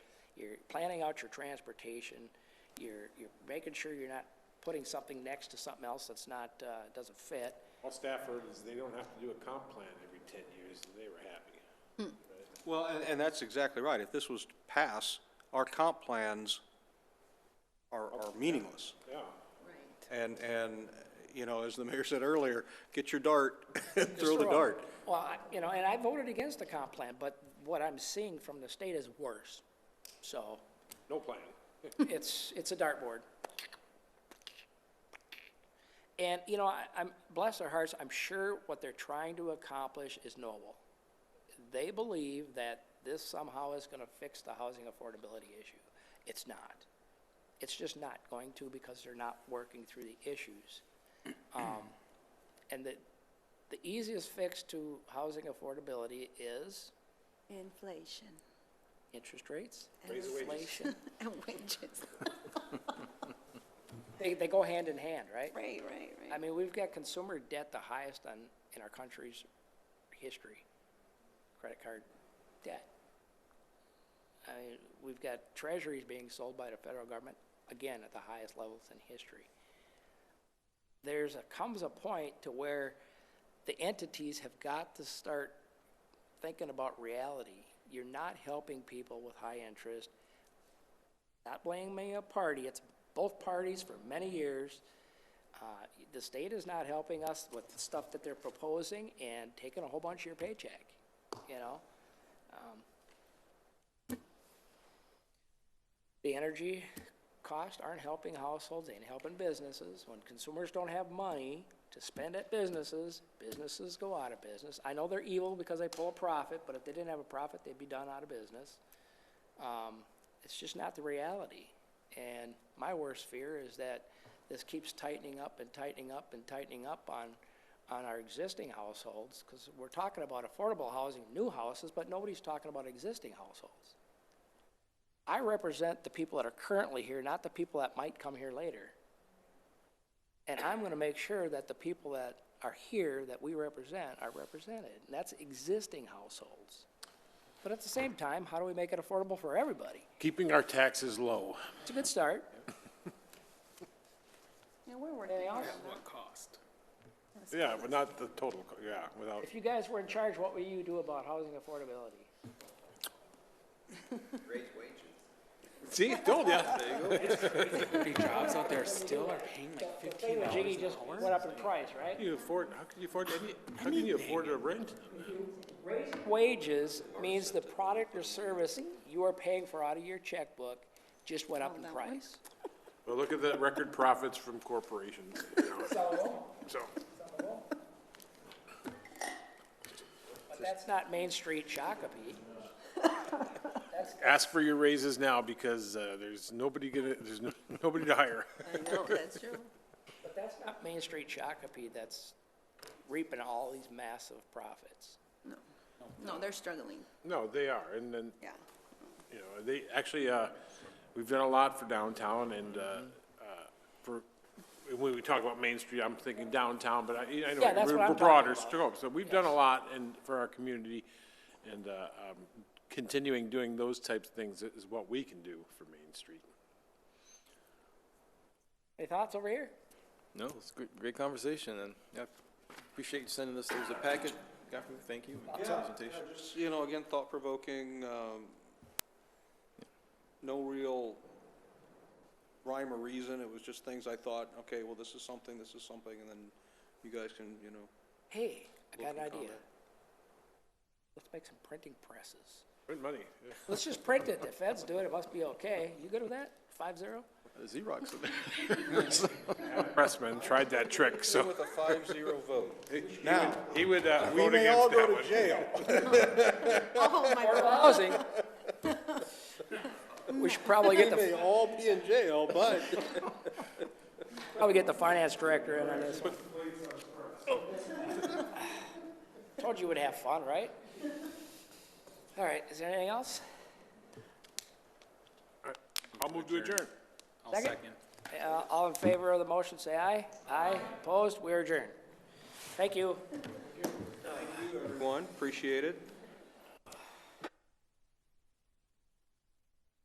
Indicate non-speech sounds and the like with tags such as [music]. you're planning out your transportation, you're, you're making sure you're not putting something next to something else that's not, uh, doesn't fit. All Stafford is they don't have to do a comp plan every 10 years, and they were happy. Well, and, and that's exactly right. If this was to pass, our comp plans are, are meaningless. Yeah, And, and, you know, as the mayor said earlier, get your dart, [laughs] throw the Just dart. Well, I- you know, and I voted against the comp plan, but what I'm seeing from the state is worse. So no plan. it's, it's a dartboard. And, you know, I, I'm, bless their hearts, I'm sure what they're trying to accomplish is noble. They believe that this somehow is gonna fix the housing affordability issue. It's not. It's just not going to because they're not working through the issues. Um, and the, the easiest fix to housing affordability is Inflation [laughs] interest rates, Raise the wages. inflation. and wages. They, they go hand in hand, right? Right, right, I right. mean, we've got consumer debt the highest on, in our country's history, credit card debt. I mean, we've got treasuries being sold by the federal government, again, at the highest levels in history. There's a, comes a point to where the entities have got to start thinking about reality. You're not helping people with high interest. Not blaming a party, it's both parties for many years. Uh, The state is not helping us with the stuff that they're proposing and taking a whole bunch of your paycheck, you know? Um, The energy costs aren't helping households, ain't helping businesses. When consumers don't have money to spend at businesses, businesses go out of business. I know they're evil because they pull a profit, but if they didn't have a profit, they'd be done out of business. Um, It's just not the reality. And my worst fear is that this keeps tightening up and tightening up and tightening up on, on our existing households, because we're talking about affordable housing, new houses, but nobody's talking about existing households. I represent the people that are currently here, not the people that might come here later. And I'm gonna make sure that the people that are here, that we represent, are represented, and that's existing households. But at the same time, how do we make it affordable for everybody? Keeping our taxes low. It's a good start. Yeah, [laughs] we're working on it. Yeah, but not the total, co- yeah, without, If you guys were in charge, what would you do about housing affordability? [laughs] see, told ya. Pretty jobs out there still are paying like fifteen dollars Jiggy an just hour. went up in price, right? You afford, how can you afford, any- how can you afford a rent? Wages means the product or service you are paying for out of your checkbook just went up in that one. price. Well, look at the record profits from corporations, you know, So, so. but that's not Main Street Shakopee. Ask for your raises now because uh, there's nobody gonna, there's no- [laughs] nobody to hire. I know, that's true. But that's not Main Street Shakopee that's reaping all these massive profits. No, no, they're struggling, No, they are, and then, yeah. you know, they, actually, uh, we've done a lot for downtown and, uh, uh, for, when we talk about Main Street, I'm thinking downtown, but I, I know. Yeah, that's we're- what I'm we're talking broader about. scope. So we've done a lot and, for our community, and, uh, um, continuing doing those types of things is what we can do for Main Street. Any thoughts over here? No, it's a great, great conversation, and I appreciate you sending us, there's a packet, got from, thank you, and presentation. Just, You know, again, thought-provoking, um, no real rhyme or reason. It was just things I thought, okay, well, this is something, this is something, and then you guys can, you know, Hey, I got an Welcome idea. comment. Let's make some printing presses. Good money, [laughs] yeah. Let's just print it. The feds do it, it must be okay. You good with that? Five zero? Uh, Xerox [laughs] in there. Pressman tried that trick, so with a five-zero vote. now, he would uh, We vote may all against go that to one. jail. Oh, my God. Housing. We should probably get We may the, all be in jail, but probably get the finance director in on this one. [laughs] Told you we'd have fun, right? All right, is there anything else? I'll move to adjourn. I'll Second. second. Uh, All in favor of the motion, say aye. Aye. Opposed, we adjourn. Thank you. Everyone, appreciate it.